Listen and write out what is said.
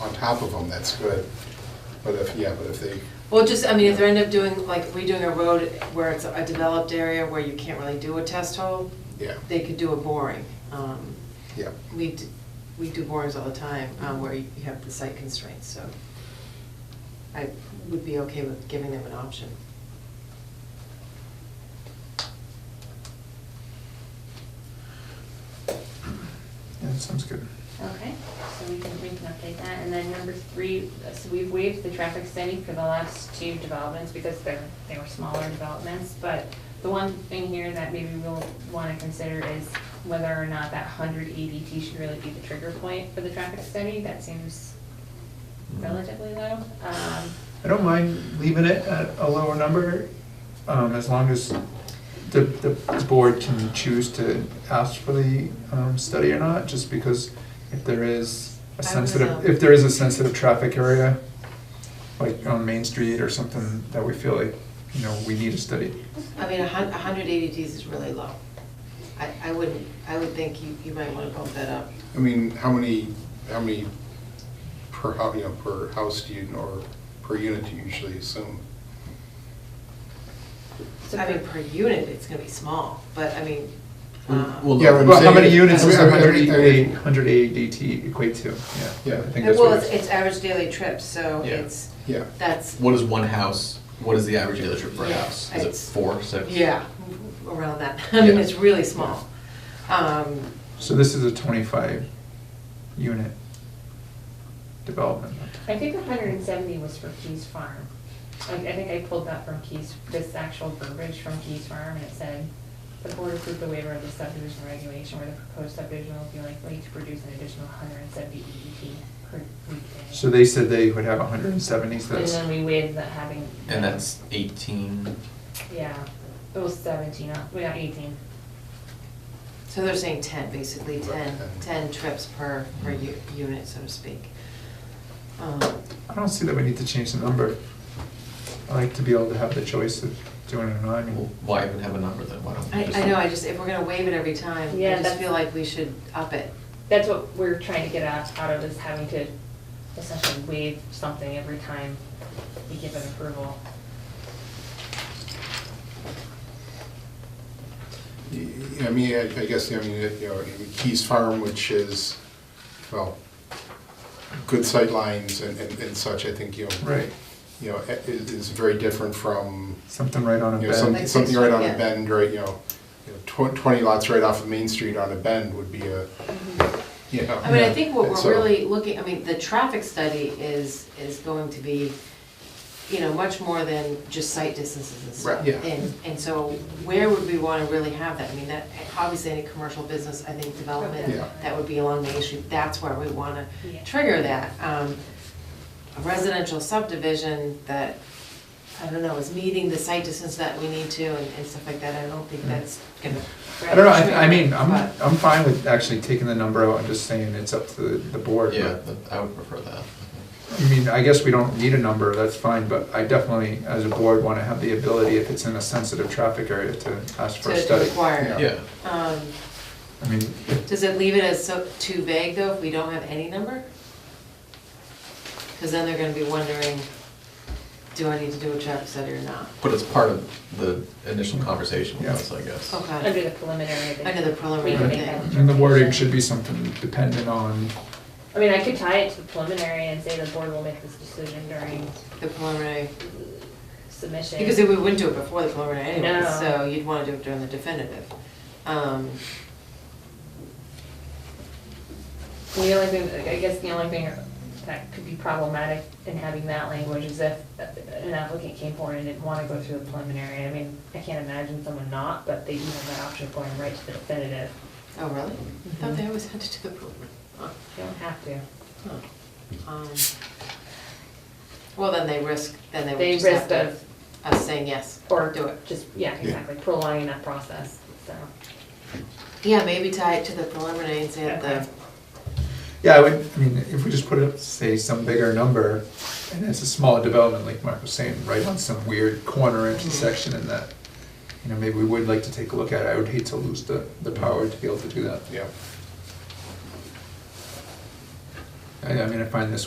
on top of them, that's good. But if, yeah, but if they, Well, just, I mean, if they end up doing, like, redoing a road where it's a developed area where you can't really do a test hole, yeah, they could do a boring. Um, yeah, We, d- we do borings all the time um, where you have the site constraints, so I would be okay with giving them an option. Yeah, that sounds good. Okay, so we can, we can update that, and then number three, so we've waived the traffic study for the last two developments because they're, they were smaller developments, but the one thing here that maybe we'll wanna consider is whether or not that hundred ADT should really be the trigger point for the traffic study, that seems relatively low. Um, I don't mind leaving it at a lower number, um, as long as the, the board can choose to ask for the, um, study or not, just because if there is I a would sensitive, know. if there is a sensitive traffic area, like on Main Street or something that we feel like, you know, we need a study. I mean, a hun, a hundred ADTs is really low. I, I wouldn't, I would think you, you might wanna bump that up. I mean, how many, how many per, hou- you know, per house do you, or per unit do you usually assume? so I mean, for- per unit, it's gonna be small, but I mean, um, Well, Yeah, but Well, how many saying- units I does mean, I mean, I 100 mean, I E- mean- 100 ADT equate to? Yeah. Yeah. I think that's well, what it's, it is. it's average daily trips, so Yeah. it's, Yeah, that's, What is one house, what is the average daily trip for a Yeah, house? Is it it's- four, six? yeah, around that. I mean, Yeah. it's really small. Um, So this is a 25 unit development. I think hundred and seventy was for Keys Farm. I, I think I pulled that from Keys, this actual verbiage from Keys Farm, and it said, the board approved the waiver of the subdivision regulation where the proposed subdivision will be likely to produce an additional hundred and seventy EDT per weekday. So they said they would have 170, so And that's, then we waived that having. And that's eighteen, Yeah, it was seventeen, uh, we got eighteen. So they're saying ten, basically, Right, 10 10. 10 trips per, per u- Mm-hmm. unit, so to speak. Um, I don't see that we need to change the number. I like to be able to have the choice of doing it or not. I well, mean, why even have a number then, why don't we I, just? I know, I just, if we're gonna waive it every time, Yeah, I just that's- feel like we should up it. That's what we're trying to get out, out of is having to essentially waive something every time we give an approval. Y- I mean, I I guess, I mean, it- you know, Keys Farm, which is, well, good sightlines and, and and such, I think, you know, right, you know, i- is, is very different from, something right on a you know, bed. something, Like something Sixth right on Street, a yeah. bend, right, you know, you know, tw- twenty lots right off of Main Street on a bend would be a, you know. I mean, I Yeah. think what And we're so- really looking, I mean, the traffic study is, is going to be, you know, much more than just site distances and stuff. Right, yeah. And, and so where would we wanna really have that? I mean, that, obviously, any commercial business, I think, development, Yeah. that would be along Main Street, that's where we wanna Yeah. trigger that. Um, A residential subdivision that, I don't know, is meeting the site distance that we need to and and stuff like that, I don't think that's gonna. I don't know, I, I mean, I'm, But- I'm fine with actually taking the number out and just saying it's up to the the board. but- Yeah, that- I would prefer that. I think. I mean, I guess we don't need a number, that's fine, but I definitely, as a board, want to have the ability, if it's in a sensitive traffic area, to ask for a To- to study. require. Yeah, Um, I mean, Does it leave it as so, too vague though, if we don't have any number? Because then they're gonna be wondering, do I need to do a traffic study or not? but it's part of the initial conversation with Yeah. us, I guess. Okay, Under the preliminary. they- Under the preliminary we can make thing. that and the wording determination. should be something dependent on, I mean, I could tie it to the preliminary and say the board will make this decision during the preliminary, submission. because we wouldn't do it before the preliminary anyway, No. so you'd wanna do it during the definitive. Um, The only thing, I guess the only thing that could be problematic in having that language is if an applicant came forward and didn't want to go through the preliminary. I mean, I can't imagine someone not, but they do have that option of going right to the definitive. Oh, really? I thought they always had to do the preliminary. Huh. You don't have to. Huh. Um, Well, then they risk, then they They would just have risk to, us saying yes, Or do it. Just, yeah, exactly, prolonging that process, so. Yeah, maybe tie it to the preliminary and say that the Okay. yeah, I would, I mean, if we just put up, say, some bigger number, and it's a small development, like Mark was saying, right on some weird corner intersection and that, you know, maybe we would like to take a look at it, I would hate to lose the, the power to be able to do that. Yeah. I, I mean, I find this